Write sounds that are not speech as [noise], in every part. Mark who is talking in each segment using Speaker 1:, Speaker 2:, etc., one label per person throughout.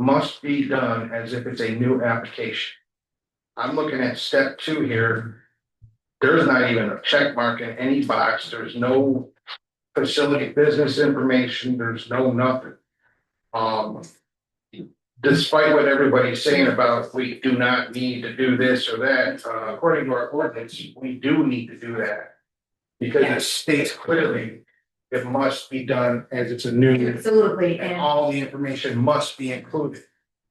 Speaker 1: must be done as if it's a new application. I'm looking at step two here. There's not even a check mark in any box, there's no facility business information, there's no nothing. Um. Despite what everybody's saying about we do not need to do this or that, uh, according to our ordinance, we do need to do that. Because it states clearly, it must be done as it's a new
Speaker 2: Absolutely,
Speaker 1: and
Speaker 2: and
Speaker 1: all the information must be included.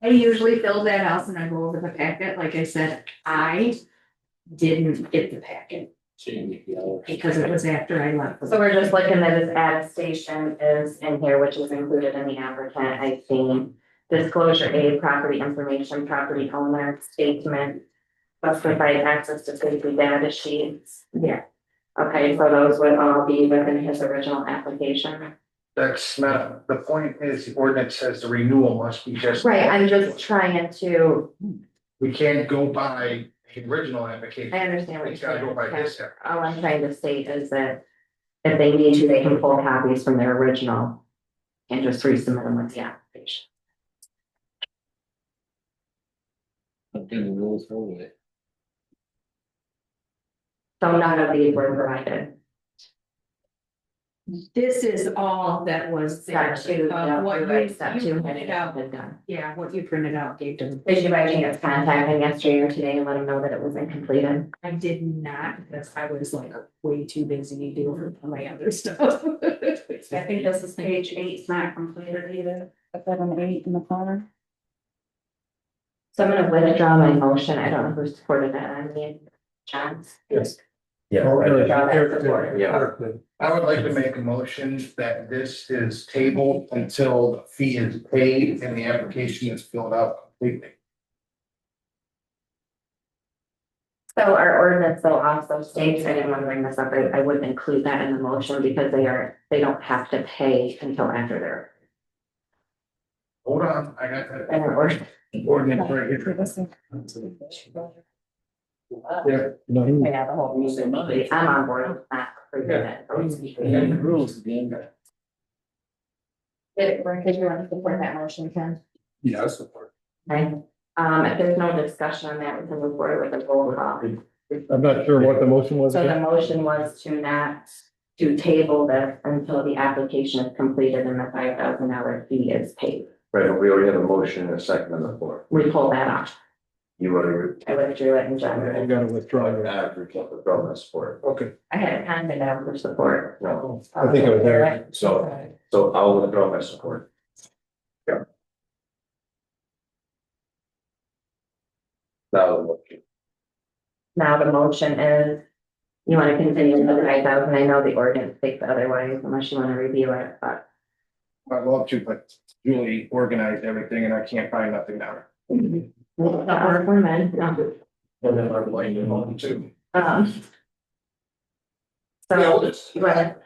Speaker 2: I usually fill that out and I go over the packet, like I said, I didn't get the packet because it was after I left.
Speaker 3: So we're just looking that his ad station is in here, which is included in the applicant, I see. Disclosure aid, property information, property owner, statement. Must provide access to safety data sheets.
Speaker 2: Yeah.
Speaker 3: Okay, so those would all be within his original application.
Speaker 1: That's not, the point is the ordinance says the renewal must be just.
Speaker 3: Right, I'm just trying to,
Speaker 1: We can't go by the original
Speaker 3: I
Speaker 1: application.
Speaker 3: understand what
Speaker 1: It's
Speaker 3: you're
Speaker 1: gotta go by
Speaker 3: saying.
Speaker 1: this. app.
Speaker 3: All I'm trying to state is that if they need to, they can pull copies from their original and just resubmit them with the application.
Speaker 4: Something rolls through it.
Speaker 3: So none of these were provided.
Speaker 2: This is all that was there
Speaker 3: Step two,
Speaker 2: too,
Speaker 3: no,
Speaker 2: of what
Speaker 3: you're
Speaker 2: you,
Speaker 3: right, step
Speaker 2: you
Speaker 3: two
Speaker 2: printed
Speaker 3: had
Speaker 2: out.
Speaker 3: been done.
Speaker 2: Yeah, what you printed out gave to them.
Speaker 3: Did you by chance contact him yesterday or today and let him know that it was incompleted?
Speaker 2: I did not, because I was like way too busy doing my other stuff. [laughs] I think this is page eight's not completed either.
Speaker 3: So I'm gonna withdraw my motion. I don't know who supported that. I mean, John's.
Speaker 5: Yes.
Speaker 3: Withdraw that support.
Speaker 1: I would like to make a motion that this is tabled until the fee is paid and the application is filled out completely.
Speaker 3: So our ordinance though also states, I didn't want to bring this up, I, I would include that in the motion because they are, they don't have to pay until after their,
Speaker 1: Hold on, I got that
Speaker 3: and their ordinance.
Speaker 1: ordinance right here. Yeah.
Speaker 3: Yeah, the whole meeting. I'm on board with that. for that.
Speaker 4: And the rules again.
Speaker 3: Did did you want to support that motion, Ken?
Speaker 5: Yeah, support.
Speaker 3: Okay, um, if there's no discussion on that, we can move forward with a roll call.
Speaker 6: I'm not sure what the motion was.
Speaker 3: So the
Speaker 6: again.
Speaker 3: motion was to not, to table this until the application is completed and the five thousand dollar fee is paid.
Speaker 7: Right, but we already have a motion and a second on the floor.
Speaker 3: We pull that off.
Speaker 7: You already.
Speaker 3: I withdrew it in
Speaker 6: You
Speaker 3: general.
Speaker 6: gotta withdraw your.
Speaker 7: After Captain Brown has support.
Speaker 1: Okay,
Speaker 3: I had a comment out for support.
Speaker 7: No,
Speaker 6: I think it was there.
Speaker 7: so, so I'll withdraw my support. Yeah. Now, the motion.
Speaker 3: Now the motion is, you want to continue with the five thousand. I know the ordinance states otherwise unless you want to review it, but
Speaker 1: I'd love to, but Julie organized everything and I can't find nothing now.
Speaker 3: we'll stop for a minute. No.
Speaker 7: And then I'm like, you want to.
Speaker 3: Um, So, but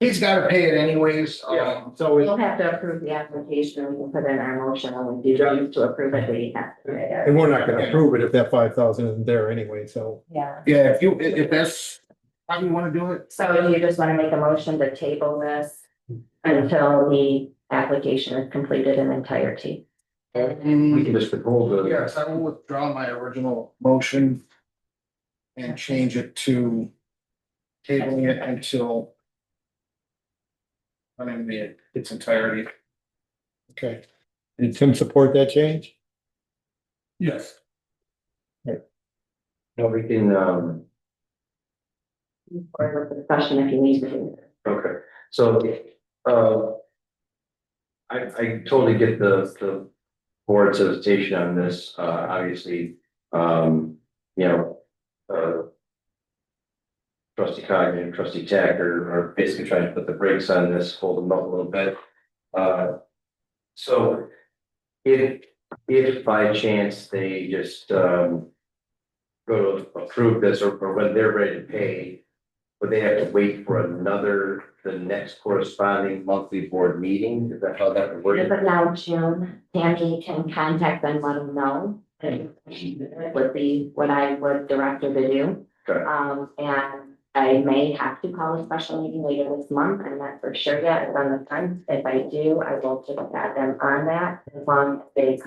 Speaker 1: He's gotta pay it anyways,
Speaker 7: Yeah.
Speaker 1: um,
Speaker 6: So it,
Speaker 3: we'll have to approve the application, and we can put in our motion when we do choose to approve it, we have to.
Speaker 6: and we're not gonna approve it if that five thousand isn't there anyway, so.
Speaker 3: Yeah,
Speaker 1: yeah, if you, if if that's how you wanna do it,
Speaker 3: so you just wanna make a motion to table this until the application is completed in entirety.
Speaker 7: We can just withhold the.
Speaker 1: Yes, I will withdraw my original motion. And change it to. Tabling it until. I mean, the- its entirety.
Speaker 6: Okay. Did Tim support that change?
Speaker 5: Yes.
Speaker 7: No, we can, um.
Speaker 3: Or with discussion if you need to.
Speaker 7: Okay, so, uh. I, I totally get the, the board's hesitation on this, uh, obviously, um, you know, uh. Trustee Cog and trustee Tack are, are basically trying to put the brakes on this, hold them up a little bit. Uh, so if, if by chance they just, um. Go to approve this or, or when they're ready to pay, would they have to wait for another, the next corresponding monthly board meeting? Is that how that would
Speaker 3: As
Speaker 7: work?
Speaker 3: of now, June, Tammy can contact them, let them know. and Would be what I would direct her to do.
Speaker 7: Okay.
Speaker 3: Um, and I may have to call a special meeting later this month, I'm not for sure yet, it's on the time, if I do, I will just add them on that, as long as they come